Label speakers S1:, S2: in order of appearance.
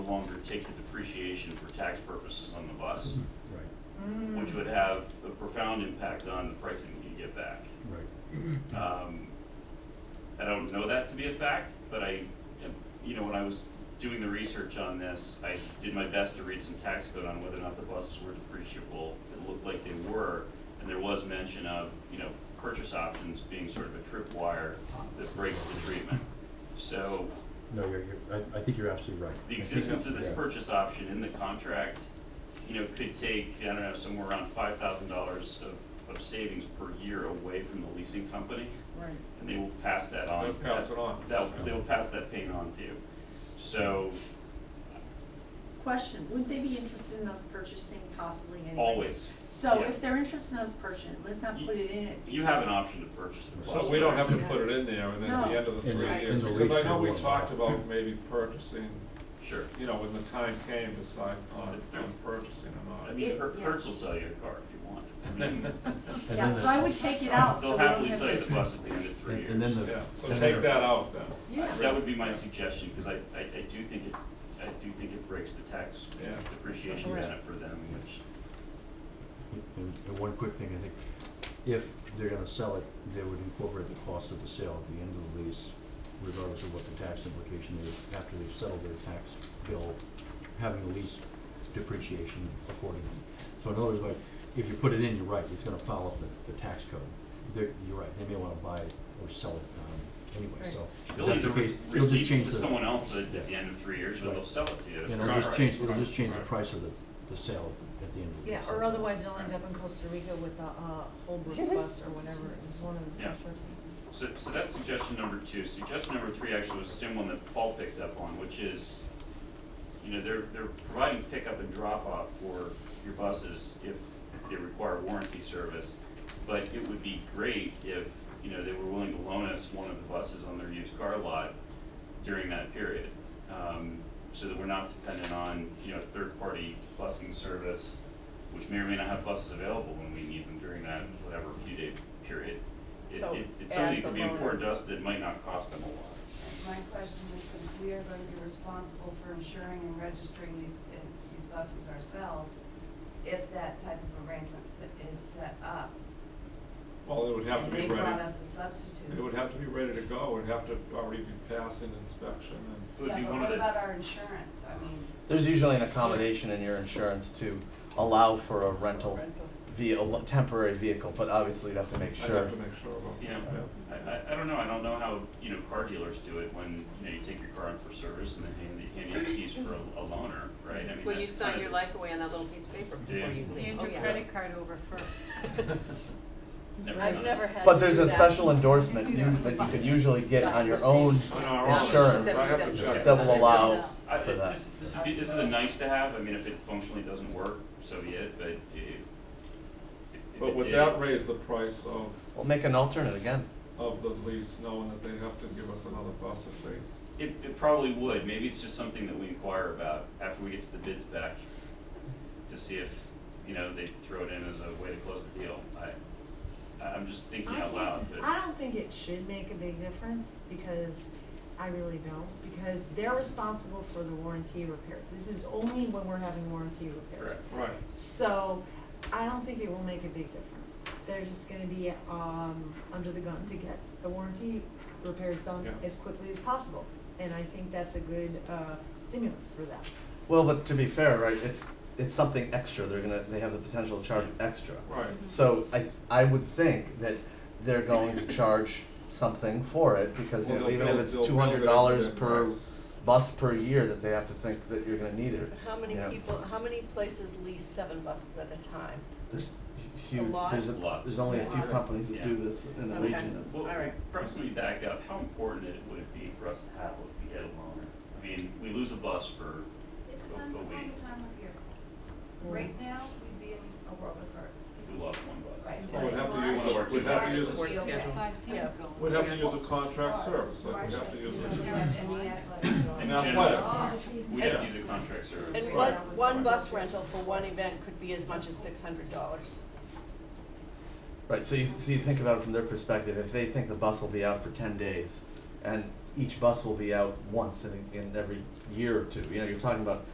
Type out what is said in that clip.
S1: longer take the depreciation for tax purposes on the bus,
S2: Right,
S1: which would have a profound impact on the pricing that you get back.
S2: right.
S1: Um, I don't know that to be a fact, but I, you know, when I was doing the research on this, I did my best to read some tax code on whether or not the buses were depreciable. It looked like they were, and there was mention of, you know, purchase options being sort of a tripwire that breaks the treatment. So
S2: No, you're, you're, I, I think you're absolutely right.
S1: the existence of this
S2: Yeah.
S1: purchase option in the contract, you know, could take, I don't know, somewhere around five thousand dollars of, of savings per year away from the leasing company,
S3: Right.
S1: and they will pass that on.
S4: They'll pass it on.
S1: That, they'll pass that pain on to you. So,
S3: Question, wouldn't they be interested in us purchasing possibly anyway?
S1: always,
S3: So
S1: yeah.
S3: if they're interested in us purchasing, let's not put it in it.
S1: you have an option to purchase the bus.
S4: So we don't have to
S3: Yeah.
S4: put it in there, and then at the
S3: No.
S4: end of the
S2: In
S4: three
S3: the-
S4: years,
S2: in the
S4: because I
S2: lease
S4: know
S2: or
S4: we
S2: what?
S4: talked about maybe purchasing,
S1: Sure.
S4: you know, when the time came, decide on, on purchasing
S1: I
S4: them
S1: mean,
S3: It-
S1: Her-
S3: yeah.
S1: Hertz will sell you a car if you want. I mean,
S2: And
S3: Yeah,
S2: then
S3: so
S2: the-
S3: I would take it out, so
S1: They'll
S3: we don't
S1: happily
S3: have
S1: sell you
S3: to.
S1: the bus at the end of three
S2: And-
S1: years.
S2: and then the-
S4: Yeah, so
S2: And
S4: take
S2: then-
S4: that out then.
S1: That
S3: Yeah,
S1: would be my suggestion, because I, I, I do think it, I do think it breaks the tax
S4: Yeah.
S1: depreciation
S3: Right.
S1: benefit for them, which,
S2: And, and one quick thing, I think, if they're gonna sell it, they would incorporate the cost of the sale at the end of the lease, regardless of what the tax implication is, after they've settled their tax bill, having the lease depreciation accordingly. So in other words, like, if you put it in, you're right, it's gonna follow the, the tax code. They're, you're right, they may wanna buy it or sell it, um, anyway, so. if
S1: they'll
S2: that's
S1: either
S2: the
S1: re-
S2: case, you'll just
S1: release it
S2: change
S1: to
S2: the-
S1: someone else at
S2: Yeah.
S1: the end of three years, or they'll
S2: Right.
S1: sell it to you.
S2: And it'll
S4: Right,
S2: just change,
S4: right,
S2: it'll just change the
S4: right.
S2: price of the, the sale at the end of the.
S5: Yeah,
S2: lease,
S5: or
S2: that's all.
S5: otherwise they'll end up in Costa Rica with the, uh, Holbrook bus or whatever, it was one of the
S1: Yeah.
S5: short things.
S1: So, so that's suggestion number two. Suggestion number three actually was the same one that Paul picked up on, which is, you know, they're, they're providing pickup and drop-off for your buses if they require warranty service. But it would be great if, you know, they were willing to loan us one of the buses on their used car lot during that period. Um, so that we're not dependent on, you know, third-party busing service, which may or may not have buses available when we need them during that, whatever, few-day period. It,
S5: So
S1: it, it's
S5: add
S1: something that
S5: the
S1: could be
S5: loaner.
S1: important to us that might not cost them a lot.
S6: My question is, since we are going to be responsible for insuring and registering these, uh, these buses ourselves, if that type of arrangement se- is set up,
S4: Well, it would have to
S6: and
S4: be
S6: they brought
S4: ready,
S6: us a substitute.
S4: it would have to be ready to go, it would have to already be passing inspection and,
S1: It would be
S6: Yeah, but
S1: one of
S6: what
S1: the-
S6: about our insurance? I mean,
S7: There's usually an accommodation in your insurance to allow for a rental
S6: rental.
S7: via a lo- temporary vehicle, but obviously you'd have to make
S4: I'd
S7: sure.
S4: have to make sure about that.
S1: You know, I, I, I don't know, I don't know how, you know, car dealers do it when, you know, you take your car in for service and then hand, you- hand you the keys for a, a loaner, right? I mean,
S8: Well, you
S1: that's
S8: sign
S1: kind
S8: your
S1: of-
S8: life away on that little piece of paper
S1: Do you?
S8: before you leave.
S9: Hand
S8: Oh,
S9: your
S8: yeah.
S9: credit card over first.
S1: Never
S5: I've
S1: done
S5: never
S1: it.
S5: had
S7: But
S5: to
S7: there's
S5: do
S7: a
S5: that.
S7: special endorsement
S9: You do
S7: you-
S9: that on the
S7: that you
S9: bus.
S7: can usually get on your
S8: Right.
S7: own
S4: On our own.
S7: insurance
S4: I have to check.
S8: Seventy-seven.
S7: that will allow
S1: I,
S7: for that.
S1: this, this would be, this is a nice to have, I mean, if it functionally doesn't work, so be it, but it, if, if
S4: But
S1: it
S4: would
S1: did-
S4: that raise the price of,
S7: We'll make an alternate again.
S4: of the lease, knowing that they have to give us another bus if they
S1: It, it probably would, maybe it's just something that we inquire about after we get the bids back to see if, you know, they throw it in as a way to close the deal. I, I- I'm just thinking out loud, but.
S5: I don't think it should make a big difference, because I really don't, because they're responsible for the warranty repairs. This is only when we're having warranty repairs.
S1: Correct.
S4: Right,
S5: So I don't think it will make a big difference. They're just gonna be um under the gun to get the warranty repairs done
S4: Yeah.
S5: as quickly as possible. And I think that's a good uh stimulus for them.
S7: Well, but to be fair, right, it's, it's something extra. They're gonna, they have the potential to charge extra.
S9: Mm-hmm.
S4: right.
S7: So I, I would think that they're going to charge something for it because you
S4: Well,
S7: know,
S4: they'll
S7: even if
S4: build-
S7: it's
S4: they'll
S7: two
S4: build it
S7: hundred
S4: into
S7: dollars
S4: their
S7: per
S4: price.
S7: bus per year that they have to think that you're gonna need it.
S10: How many
S7: Yeah.
S10: people, how many places lease seven buses at a time?
S7: There's huge,
S10: lot?
S7: there's a,
S1: Lots.
S7: there's only a few
S10: Yeah.
S7: companies that do
S1: Yeah.
S7: this in the
S10: Okay.
S7: region.
S1: Well,
S10: All right.
S1: perhaps let me back up, how important it would it be for us to have, a- to get a loaner? I mean, we lose a bus for,
S6: It depends
S1: But
S6: upon the
S1: we-
S6: time of year. Right now, we'd be in a world of hurt.
S1: if we lost one bus.
S6: Right.
S4: Well, we'd have to use,
S1: One of our
S4: we'd have
S1: two
S4: to use
S8: buses. Sports schedule.
S9: Five tens
S10: Yeah.
S9: going.
S4: We'd have to use a contract service, like
S6: March,
S4: we'd have to use
S6: you
S4: a,
S6: don't have any athletics
S1: In
S6: going.
S4: an
S1: general,
S4: athletics.
S6: All the season.
S1: We'd have to use a contract service.
S10: And
S6: Right.
S10: one,
S6: Right.
S10: one bus rental for one event could be as much as six hundred dollars.
S7: Right, so you, so you think about it from their perspective, if they think the bus will be out for ten days and each bus will be out once in, in every year or two. You know, you're talking about